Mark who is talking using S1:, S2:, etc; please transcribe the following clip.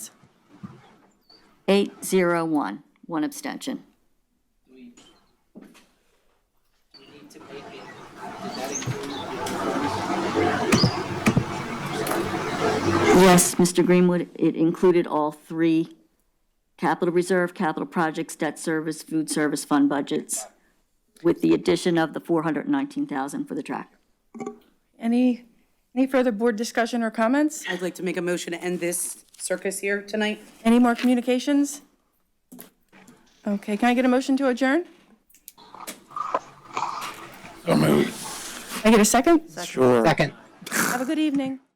S1: Eight, zero, one, one abstention.
S2: Do we, we need to make it, did that include the
S1: Yes, Mr. Greenwood, it included all three, capital reserve, capital projects, debt service, food service fund budgets, with the addition of the 419,000 for the track.
S3: Any, any further board discussion or comments?
S4: I'd like to make a motion to end this circus here tonight.
S3: Any more communications? Okay, can I get a motion to adjourn?
S5: So moved.
S3: Can I get a second?
S5: Sure.
S6: Second.
S3: Have a good evening.